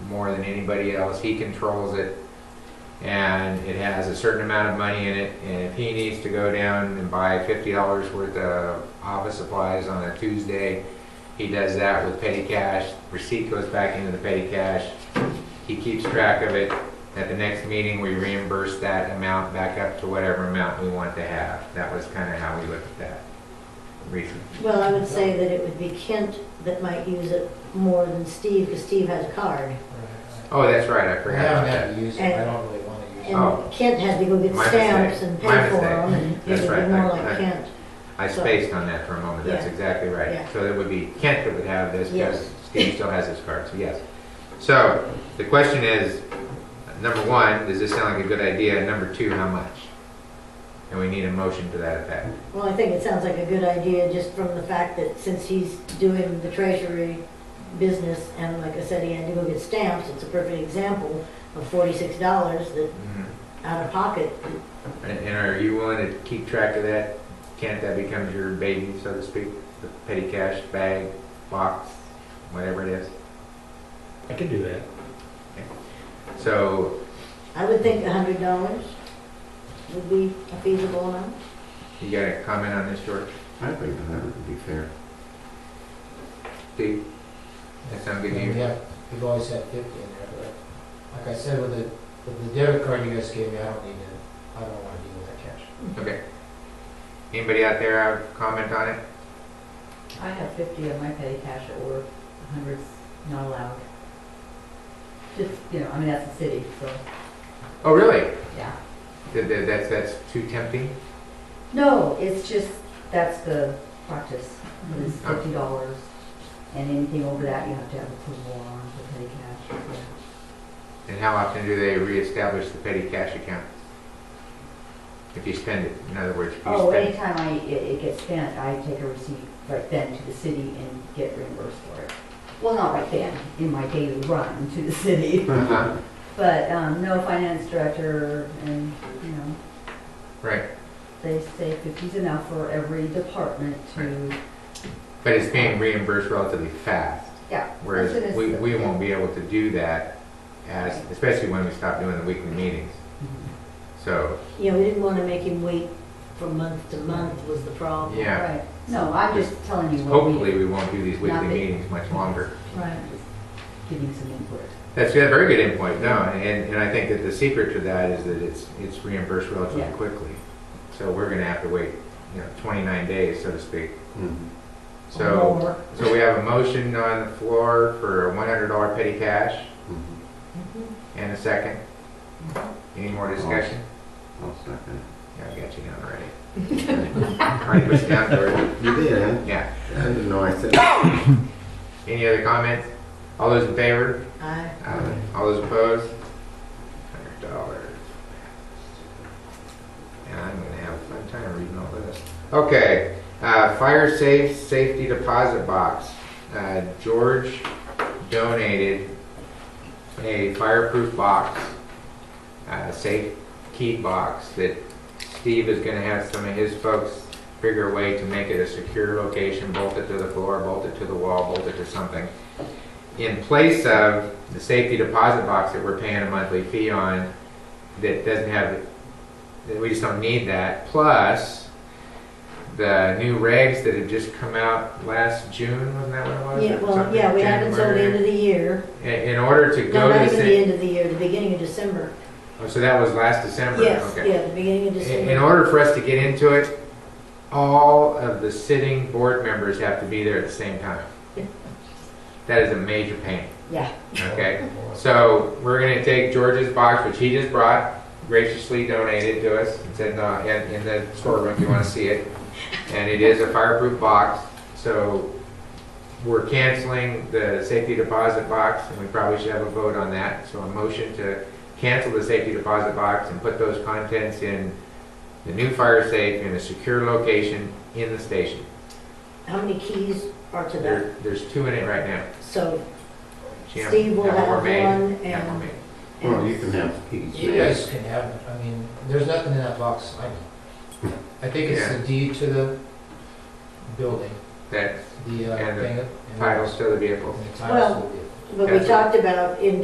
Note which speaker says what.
Speaker 1: more than anybody else. He controls it. And it has a certain amount of money in it. And if he needs to go down and buy fifty dollars worth of office supplies on a Tuesday, he does that with petty cash. Receipt goes back into the petty cash. He keeps track of it. At the next meeting, we reimburse that amount back up to whatever amount we want to have. That was kind of how we looked at that recently.
Speaker 2: Well, I would say that it would be Kent that might use it more than Steve, because Steve has a card.
Speaker 1: Oh, that's right, I
Speaker 3: I
Speaker 1: forgot about
Speaker 3: haven't
Speaker 1: that.
Speaker 3: had to use it, I don't really want to use it.
Speaker 1: Oh.
Speaker 2: And Kent had to go get
Speaker 1: My
Speaker 2: stamps
Speaker 1: mistake.
Speaker 2: and
Speaker 1: My
Speaker 2: pay for them, and it
Speaker 1: That's
Speaker 2: would
Speaker 1: right.
Speaker 2: be more
Speaker 1: I-
Speaker 2: like
Speaker 1: I-
Speaker 2: Kent.
Speaker 1: I spaced on that for a moment, that's
Speaker 2: Yeah.
Speaker 1: exactly
Speaker 2: Yeah.
Speaker 1: right. So it would be Kent that would have this,
Speaker 2: Yes.
Speaker 1: because Steve still has his card, so yes. So, the question is, number one, does this sound like a good idea? And Number two, how much? And we need a motion to that effect.
Speaker 2: Well, I think it sounds like a good idea, just from the fact that since he's doing the treasury business, and like I said, he had to go get stamps, it's a perfect example of forty-six dollars that,
Speaker 4: Mm-hmm.
Speaker 2: out of pocket.
Speaker 1: And and are you willing to keep track of that? Kent, that becomes your baby, so to speak, the petty cash bag, box, whatever it is?
Speaker 4: I can do that.
Speaker 1: So,
Speaker 2: I would think a hundred dollars would be a feasible amount.
Speaker 1: you got a comment on this, George?
Speaker 5: I think a hundred would be fair.
Speaker 1: Steve? That sound good to you?
Speaker 3: And we have, we've always had fifty in there, but like I said, with the, with the debit card you guys gave me, I don't need to, I don't want to deal with that cash.
Speaker 1: Okay. Anybody out there have a comment on it?
Speaker 6: I have fifty of my petty cash at work, a hundred's not allowed. Just, you know, I mean, that's the city, so,
Speaker 1: Oh, really?
Speaker 6: yeah.
Speaker 1: That, that, that's, that's too tempting?
Speaker 6: No, it's just, that's the practice, is fifty dollars, and anything over that, you have to have approval on for petty cash. yeah.
Speaker 1: And how often do they reestablish the petty cash account? If you spend it, in other words, if you
Speaker 6: Oh,
Speaker 1: spend.
Speaker 6: anytime I, it, it gets spent, I take a receipt right then to the city and get reimbursed for it. Well, not right then, in my daily run to the city,
Speaker 1: Uh-huh,
Speaker 6: but, um, no finance director and, you know,
Speaker 1: right.
Speaker 6: They say fifty's enough for every department to,
Speaker 1: But it's being reimbursed relatively fast.
Speaker 6: yeah. that's
Speaker 1: Whereas
Speaker 6: what
Speaker 1: we,
Speaker 6: it's-
Speaker 1: we won't be able to do that as, especially when we stop doing the weekly meetings. So,
Speaker 2: You know, we didn't want to make him wait from month to month was the problem.
Speaker 1: yeah,
Speaker 6: Right, no, I'm just telling you what we.
Speaker 1: hopefully we won't do these weekly
Speaker 6: Nothing.
Speaker 1: meetings much longer.
Speaker 2: Right.
Speaker 6: Just Giving some input.
Speaker 1: That's a very good endpoint, no, and, and I think that the secret to that is that it's, it's reimbursed relatively
Speaker 6: Yeah.
Speaker 1: quickly. So we're gonna have to wait, you know, twenty-nine days, so to speak.
Speaker 5: Mhm.
Speaker 1: So,
Speaker 2: Or-
Speaker 1: so we have a motion on the floor for a one hundred dollar petty cash
Speaker 5: Mhm.
Speaker 1: and a second. Any more discussion?
Speaker 5: I'll second
Speaker 1: Yeah, I got you down already. Already put you down, George.
Speaker 5: it. You did, huh?
Speaker 1: Yeah.
Speaker 5: I didn't know I said. it.
Speaker 1: Any other comments? All those in favor?
Speaker 2: I-
Speaker 1: Aye. Uh, All those opposed? Hundred dollars. And I'm gonna have a fun time reading all this. Okay, uh, fire safe, safety deposit box. Uh, George donated a fireproof box, a safe key box that Steve is gonna have some of his folks figure a way to make it a secure location, bolt it to the floor, bolt it to the wall, bolt it to something in place of the safety deposit box that we're paying a monthly fee on that doesn't have, that we just don't need that, plus the new regs that have just come out last June, wasn't that what it was?
Speaker 2: Yeah, well, yeah, we have until the end of the year.
Speaker 1: In, in order to go
Speaker 2: No, not
Speaker 1: to,
Speaker 2: even the
Speaker 1: sa-
Speaker 2: end of the year, the beginning of December.
Speaker 1: oh, so that was last December?
Speaker 2: Yes,
Speaker 1: Okay.
Speaker 2: yeah, the beginning of
Speaker 1: In in
Speaker 2: December.
Speaker 1: order for us to get into it, all of the sitting board members have to be there at the same time. That is a major pain.
Speaker 6: Yeah.
Speaker 1: Okay? So we're gonna take George's box, which he just brought, graciously donated to us. It's in the, in, in the storeroom if you wanna see it. And it is a fireproof box, so we're canceling the safety deposit box, and we probably should have a vote on that. So a motion to cancel the safety deposit box and put those contents in the new fire safe in a secure location in the station.
Speaker 2: How many keys are to that?
Speaker 1: There, there's two in it right now.
Speaker 2: So
Speaker 1: Jim,
Speaker 2: Steve will
Speaker 1: have
Speaker 2: have
Speaker 1: more
Speaker 2: one
Speaker 1: made,
Speaker 2: and.
Speaker 1: have more made.
Speaker 5: Well, you can have keys.
Speaker 3: You guys can have, it. I mean, there's nothing in that box, I know. I think it's the deed to the building,
Speaker 1: That's
Speaker 3: the, uh,
Speaker 1: And the
Speaker 3: thing. and the-
Speaker 1: titles to the vehicles.
Speaker 3: And the
Speaker 2: Well,
Speaker 3: titles will be.
Speaker 2: But we
Speaker 1: That's-
Speaker 2: talked about in